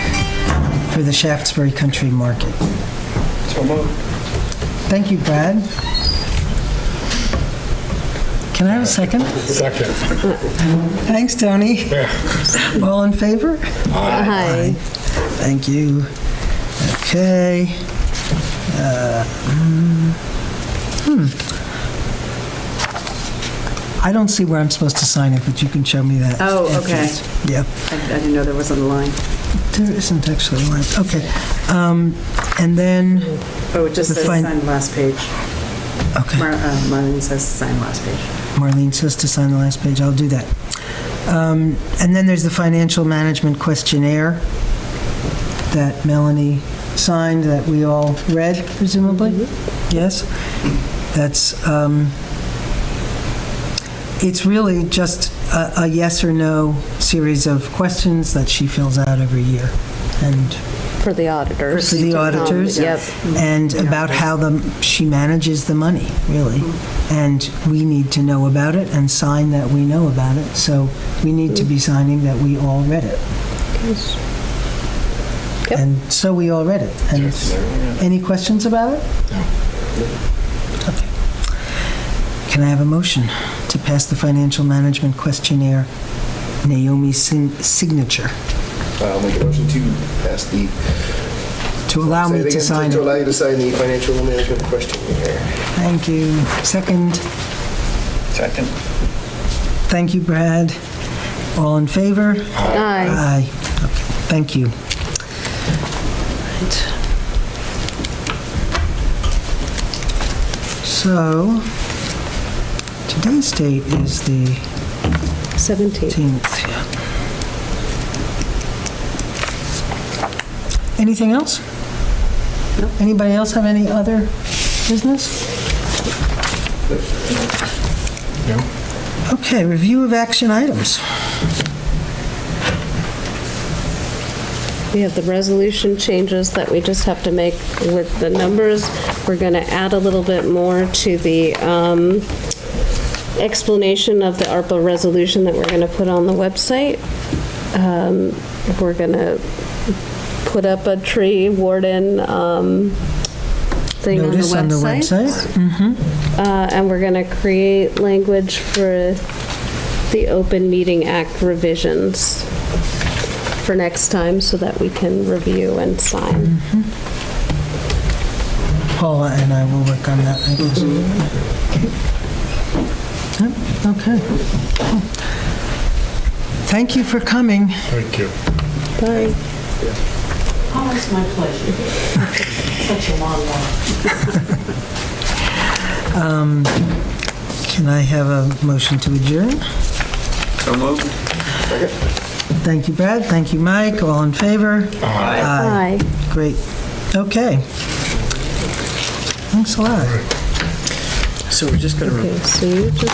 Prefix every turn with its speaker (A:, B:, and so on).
A: for the Shaftesbury Country Market.
B: So moved.
A: Thank you, Brad. Can I have a second?
B: Second.
A: Thanks, Tony. All in favor?
C: Aye.
A: Thank you. Okay. Uh, mm, hmm. I don't see where I'm supposed to sign it, but you can show me that.
C: Oh, okay.
A: afterwards. Yeah.
C: I I didn't know there was a line.
A: There isn't actually one, okay. Um, And then,
C: Oh, it just
A: The
C: says
A: fin-
C: sign last page.
A: okay,
C: Mar- uh, Marlene says sign last page.
A: Marlene says to sign the last page, I'll do that. Um, And then there's the financial management questionnaire that Melanie signed, that we all read presumably? Yes? That's, um, it's really just a a yes or no series of questions that she fills out every year. And
D: For the auditors.
A: For the auditors.
D: Um, Yep.
A: and about how the, she manages the money, really.
D: Mm-hmm.
A: And we need to know about it and sign that we know about it. So we need to be
D: Mm-hmm.
A: signing that we all read it.
D: Yep.
A: And so we all read it. And any questions about it? Okay. Can I have a motion to pass the financial management questionnaire, Naomi's sin- signature,
B: I'll make a motion to pass the.
A: to allow
B: Say
A: me
B: it
A: to
B: again,
A: sign
B: To
A: it?
B: allow you to sign the financial management questionnaire.
A: Thank you. Second?
B: Second.
A: Thank you, Brad. All in favor?
D: Aye.
A: Aye. Okay, Thank you. Right. So, today's date is the
D: 17.
A: 18th. yeah. Anything else? Anybody else have any other business? Okay, review of action items.
D: We have the resolution changes that we just have to make with the numbers. We're going to add a little bit more to the um, explanation of the ARPA resolution that we're going to put on the website. Um, We're going to put up a tree warden um, thing on the website.
A: Notice on the website.
D: Uh, And we're going to create language for the Open Meeting Act revisions for next time so that we can review and sign.
A: Paula and I will work on that, I guess. Yep, Okay. Thank you for coming.
E: Thank you.
D: Bye.
F: Always my pleasure. Such a long walk.
A: Can I have a motion to adjourn?
B: So moved.
A: Thank you, Brad. Thank you, Mike. All in favor?
D: Bye.
A: Great. Okay. Thanks a lot.
B: So we're just going to
D: Okay, so you just